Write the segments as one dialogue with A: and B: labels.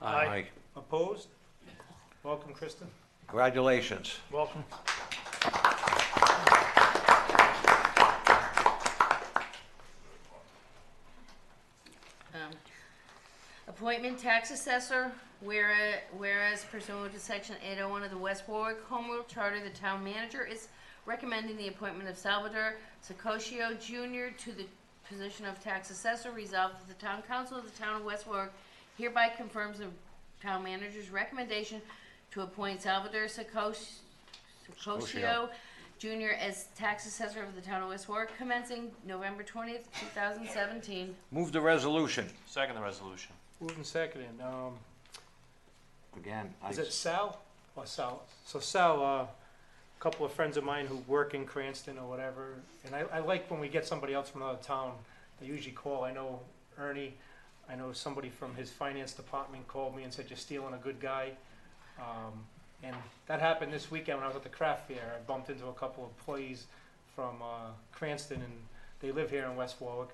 A: Aye.
B: Opposed? Welcome, Kristen.
A: Congratulations.
B: Welcome.
C: Um, Appointment tax assessor, wherea- whereas pursuant to section eight oh one of the West Warwick Home Rule Charter, the town manager is recommending the appointment of Salvador Secoshio Junior to the position of tax assessor, resolved that the town council of the town of West Warwick hereby confirms the town manager's recommendation to appoint Salvador Secosh- Secoshio Junior as tax assessor of the town of West Warwick commencing November twentieth, two thousand seventeen.
A: Move the resolution.
D: Second the resolution.
B: Moved and seconded. Um,
A: Again, I,
B: is it Sal or Sal? So Sal, uh, a couple of friends of mine who work in Cranston or whatever, and I, I like when we get somebody else from another town, they usually call. I know Ernie, I know somebody from his finance department called me and said, you're stealing a good guy. Um, and that happened this weekend when I was at the craft fair. I bumped into a couple of employees from, uh, Cranston and they live here in West Warwick.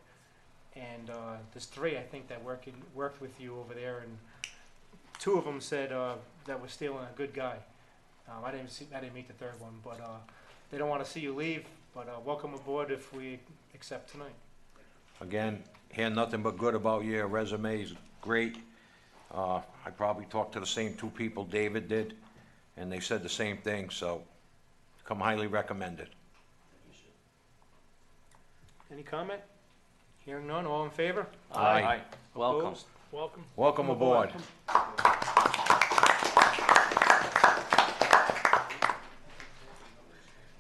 B: And, uh, there's three, I think, that work in, worked with you over there and two of them said uh, that we're stealing a good guy. Um, I didn't see, I didn't meet the third one, but uh, they don't want to see you leave. But uh, welcome aboard if we accept tonight.
A: again, hear nothing but good about your resume is great. Uh, I probably talked to the same two people David did, and they said the same thing, so come highly recommended.
B: Any comment? Hearing none. All in favor?
A: Aye.
D: Welcome.
B: Opposed? Welcome.
A: Welcome aboard.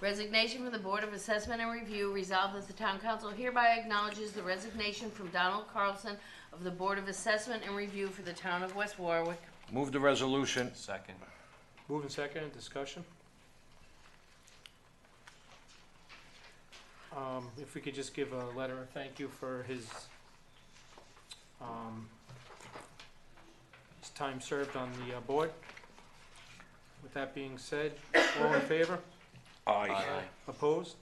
C: Resignation from the Board of Assessment and Review resolved that the town council hereby acknowledges the resignation from Donald Carlson of the Board of Assessment and Review for the town of West Warwick.
A: Move the resolution.
D: Second.
B: Moving second. Discussion. Um, if we could just give a letter of thank you for his um, his time served on the uh, board. With that being said, all in favor?
A: Aye.
B: Opposed?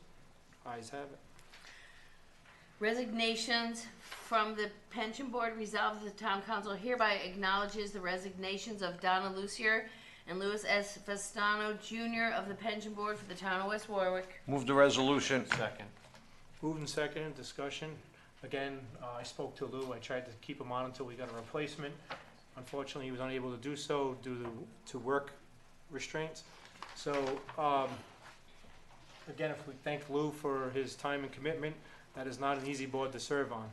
B: Ayes have it.
C: Resignations from the Pension Board resolved that the town council hereby acknowledges the resignations of Donna Lucier and Louis S. Vestano Jr. of the Pension Board for the town of West Warwick.
A: Move the resolution.
D: Second.
B: Moved and seconded, discussion. Again, uh, I spoke to Lou, I tried to keep him on until we got a replacement. Unfortunately, he was unable to do so due to, to work restraints. So, um, again, if we thank Lou for his time and commitment, that is not an easy board to serve on.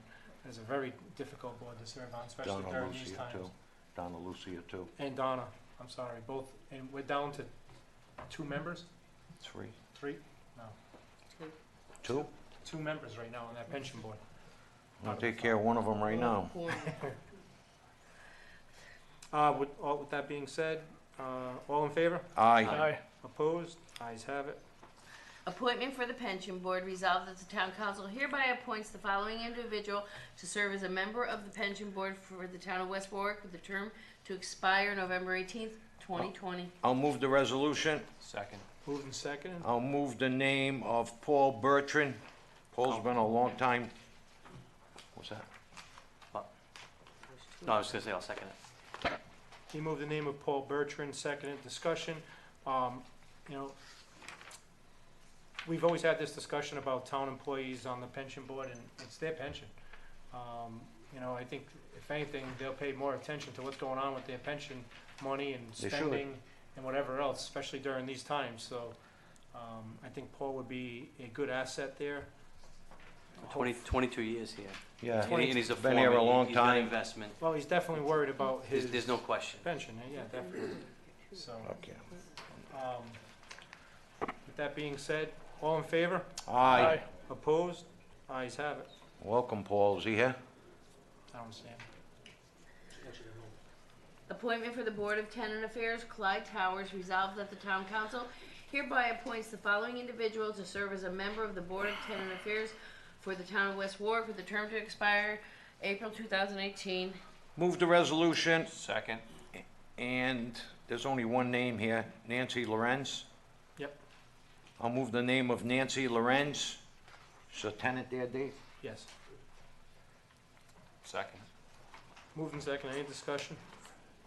B: It's a very difficult board to serve on, especially
A: Donna
B: during these
A: Lucia
B: times.
A: too. Donna Lucia too.
B: And Donna, I'm sorry, both, and we're down to two members,
A: Three.
B: three,
A: Two?
B: two members right now on that pension board.
A: I'll take care of one of them right now.
B: Uh, with, all, with that being said, uh, all in favor?
A: Aye.
B: Opposed? Ayes have it.
C: Appointment for the Pension Board resolved that the town council hereby appoints the following individual to serve as a member of the Pension Board for the town of West Warwick with a term to expire November eighteenth, twenty twenty.
A: I'll move the resolution.
D: Second.
B: Moved and seconded.
A: I'll move the name of Paul Bertrand. Paul's been a long time, what's that?
D: No, I was gonna say, I'll second it.
B: He moved the name of Paul Bertrand, seconded. Discussion, um, you know, we've always had this discussion about town employees on the pension board, and it's their pension. Um, you know, I think if anything, they'll pay more attention to what's going on with their pension money and
A: They should.
B: spending and whatever else, especially during these times, so, um, I think Paul would be a good asset there.
E: Twenty, twenty-two years here.
A: Yeah.
E: And he- and he's a
A: Been here a
E: foreman. He-
A: long
E: he's done
A: time.
E: investment.
B: Well, he's definitely worried about his.
E: There's, there's no question.
B: Pension, eh? yeah, definitely. So,
A: Okay.
B: um, with that being said, all in favor?
A: Aye.
B: Opposed? Ayes have it.
A: Welcome, Paul. Is he here?
B: I don't see him.
C: Appointment for the Board of Tenant Affairs, Clyde Towers, resolved that the town council hereby appoints the following individual to serve as a member of the Board of Tenant Affairs for the town of West Warwick with a term to expire April two thousand eighteen.
A: Move the resolution,
D: Second.
A: and there's only one name here, Nancy Lorenz.
B: Yep.
A: I'll move the name of Nancy Lorenz. She's a tenant there, Dave?
B: Yes.
D: Second.
B: Moved and seconded. Any discussion?